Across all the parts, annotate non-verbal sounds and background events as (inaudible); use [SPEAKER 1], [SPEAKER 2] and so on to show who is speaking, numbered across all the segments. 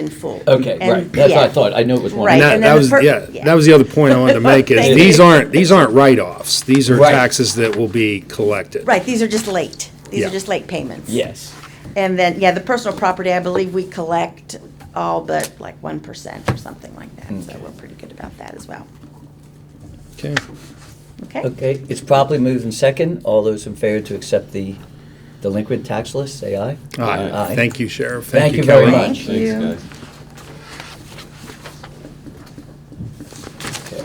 [SPEAKER 1] in full.
[SPEAKER 2] Okay,
[SPEAKER 1] And-
[SPEAKER 2] right, that's what I
[SPEAKER 1] yeah.
[SPEAKER 2] thought, I knew it was one.
[SPEAKER 1] Right,
[SPEAKER 2] of
[SPEAKER 1] Now-
[SPEAKER 2] them.
[SPEAKER 1] and
[SPEAKER 3] that, that
[SPEAKER 1] then the
[SPEAKER 3] was
[SPEAKER 1] per-
[SPEAKER 3] yeah,
[SPEAKER 1] yeah.
[SPEAKER 3] That was the other point I wanted
[SPEAKER 1] (laughs)
[SPEAKER 3] to make is
[SPEAKER 1] Thank
[SPEAKER 3] these
[SPEAKER 1] you.
[SPEAKER 3] aren't these aren't write offs. These are
[SPEAKER 2] Right.
[SPEAKER 3] taxes that will be collected.
[SPEAKER 1] Right, these are just late. These are
[SPEAKER 3] Yeah.
[SPEAKER 1] just late payments.
[SPEAKER 2] Yes,
[SPEAKER 1] And then, yeah, the personal property, I believe we collect all but like one percent or something like that. So
[SPEAKER 2] Okay.
[SPEAKER 1] we're pretty good about that as well.
[SPEAKER 3] Okay.
[SPEAKER 1] Okay?
[SPEAKER 2] okay, it's properly moved in second, all those in favor to accept the delinquent tax list, say aye.
[SPEAKER 3] All right.
[SPEAKER 2] Aye.
[SPEAKER 3] Thank you, Sheriff.
[SPEAKER 2] Thank
[SPEAKER 3] Thank,
[SPEAKER 2] you
[SPEAKER 3] you,
[SPEAKER 2] very
[SPEAKER 3] Kelly.
[SPEAKER 2] much.
[SPEAKER 1] Thank
[SPEAKER 4] Thanks,
[SPEAKER 1] you.
[SPEAKER 4] guys.
[SPEAKER 2] Okay.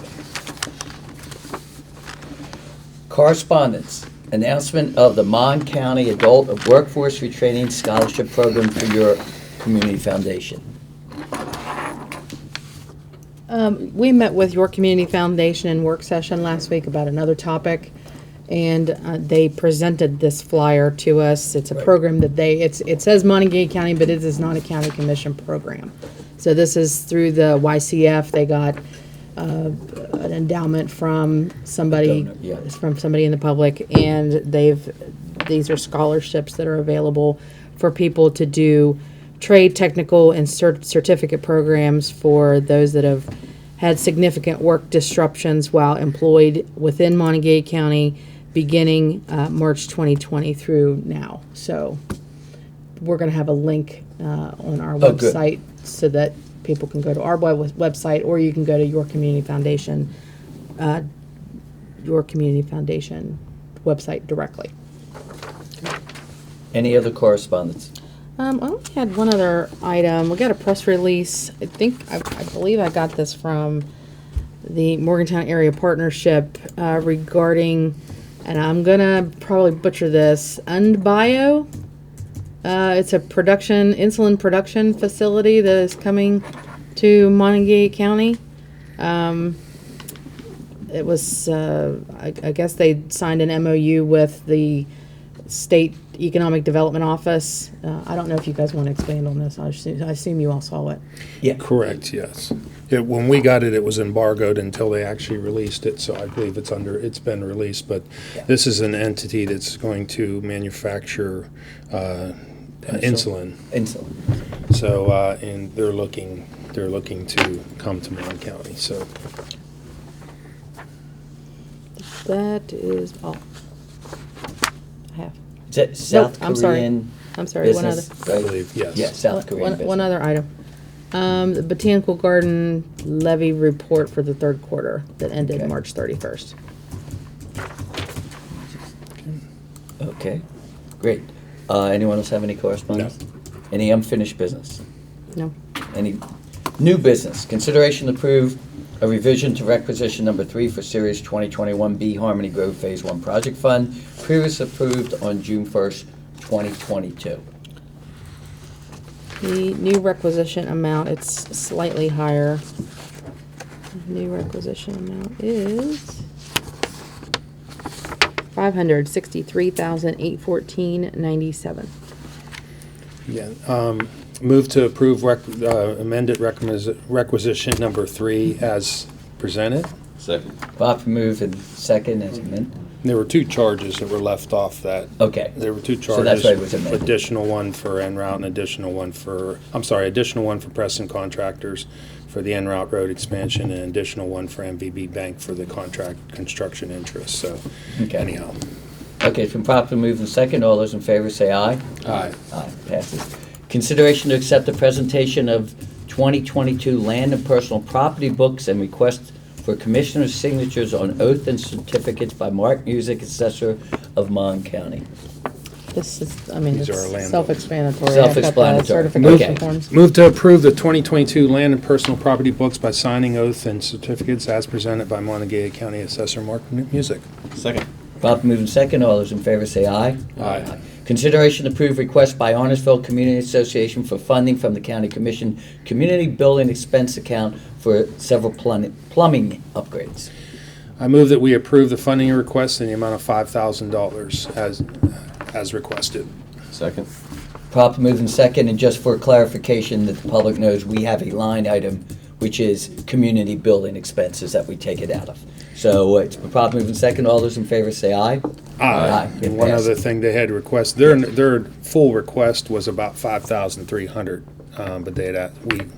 [SPEAKER 2] Correspondence, announcement of the Mon County Adult Workforce Retraining Scholarship Program for your community foundation.
[SPEAKER 5] Um, we met with York Community Foundation in work session last week about another topic, and uh, they presented this flyer to us. It's a
[SPEAKER 2] Right.
[SPEAKER 5] program that they, it's, it says Montague County, but it is not a county commission program. So this is through the YCF. They got uh, an endowment from somebody,
[SPEAKER 2] Donor, yeah.
[SPEAKER 5] from somebody in the public, and they've, these are scholarships that are available for people to do trade, technical, and cert- certificate programs for those that have had significant work disruptions while employed within Montague County, beginning uh, March 2020 through now. So we're going to have a link uh, on our
[SPEAKER 2] Oh, good.
[SPEAKER 5] website so that people can go to our web- website, or you can go to Your Community Foundation, uh, Your Community Foundation website directly.
[SPEAKER 2] Any other correspondence?
[SPEAKER 5] Um, I only had one other item. We got a press release. I think, I, I believe I got this from the Morgantown Area Partnership uh, regarding, and I'm gonna probably butcher this, Undbio. Uh, it's a production, insulin production facility that is coming to Montague County. Um, it was, uh, I, I guess they signed an MOU with the State Economic Development Office. Uh, I don't know if you guys want to expand on this. I assume, I assume you all saw it.
[SPEAKER 2] Yeah.
[SPEAKER 3] Correct. Yes. It, when we got it, it was embargoed until they actually released it. So I believe it's under. It's been released, but this is an entity that's going to manufacture uh, insulin.
[SPEAKER 2] Insulin.
[SPEAKER 3] So uh, and they're looking. They're looking to come to Mon County. So
[SPEAKER 5] That is all. I have.
[SPEAKER 2] Is that South
[SPEAKER 5] I'm sorry.
[SPEAKER 2] Korean
[SPEAKER 5] I'm sorry, one other.
[SPEAKER 2] business?
[SPEAKER 3] I
[SPEAKER 2] right?
[SPEAKER 3] believe yes.
[SPEAKER 2] Yeah, South Korean
[SPEAKER 5] One,
[SPEAKER 2] business.
[SPEAKER 5] one other item. Um, the Botanical Garden levy report for the third quarter that ended
[SPEAKER 2] Okay.
[SPEAKER 5] March thirty-first.
[SPEAKER 2] Okay, great. Uh, Anyone else have any correspondence? Any unfinished business?
[SPEAKER 5] No?
[SPEAKER 2] Any new business? Consideration to approve a revision to requisition number three for Series 2021B Harmony Grove Phase One Project Fund, previously approved on June 1st, 2022.
[SPEAKER 5] The new requisition amount, it's slightly higher. New requisition amount is five hundred sixty-three thousand eight fourteen ninety-seven.
[SPEAKER 3] Yeah, um, move to approve rec, uh, amended requisi- requisition number three as presented.
[SPEAKER 4] Second.
[SPEAKER 2] Bob move and second as amended.
[SPEAKER 3] There were two charges that were left off that,
[SPEAKER 2] Okay,
[SPEAKER 3] there were two
[SPEAKER 2] So that's
[SPEAKER 3] charges.
[SPEAKER 2] why it was amended.
[SPEAKER 3] Additional one for en route and additional one for, I'm sorry, additional one for Preston Contractors for the en route road expansion and additional one for MVB Bank for the contract construction interest, so
[SPEAKER 2] Okay.
[SPEAKER 3] anyhow.
[SPEAKER 2] okay, it's been properly moved and second. All those in favor say aye.
[SPEAKER 3] Aye.
[SPEAKER 2] Aye, passes. Consideration to accept the presentation of 2022 land and personal property books and request for commissioner's signatures on oath and certificates by Mark Music, Assessor of Mon County.
[SPEAKER 5] This is, I mean,
[SPEAKER 3] These
[SPEAKER 5] it's
[SPEAKER 3] are our land
[SPEAKER 5] self-explanatory. I've got the
[SPEAKER 2] Self-explanatory.
[SPEAKER 5] Certification
[SPEAKER 2] Okay.
[SPEAKER 5] forms.
[SPEAKER 3] Move to approve the 2022 land and personal property books by signing oath and certificates as presented by Montague County Assessor Mark Mu- Music.
[SPEAKER 4] Second.
[SPEAKER 2] Properly moved in second, all those in favor say aye.
[SPEAKER 3] Aye.
[SPEAKER 2] Consideration to approve request by Arnesville Community Association for funding from the County Commission Community Building Expense Account for several plun- plumbing upgrades.
[SPEAKER 3] I move that we approve the funding request in the amount of five thousand dollars as, as requested.
[SPEAKER 4] Second.
[SPEAKER 2] Properly moved in second, and just for clarification that the public knows, we have a line item, which is community building expenses that we take it out of. So uh, it's been properly moved in second, all those in favor say aye. Aye. It
[SPEAKER 3] And one
[SPEAKER 2] passed.
[SPEAKER 3] other thing they had request, their, their full request was about five thousand three hundred. um, but they had, a- we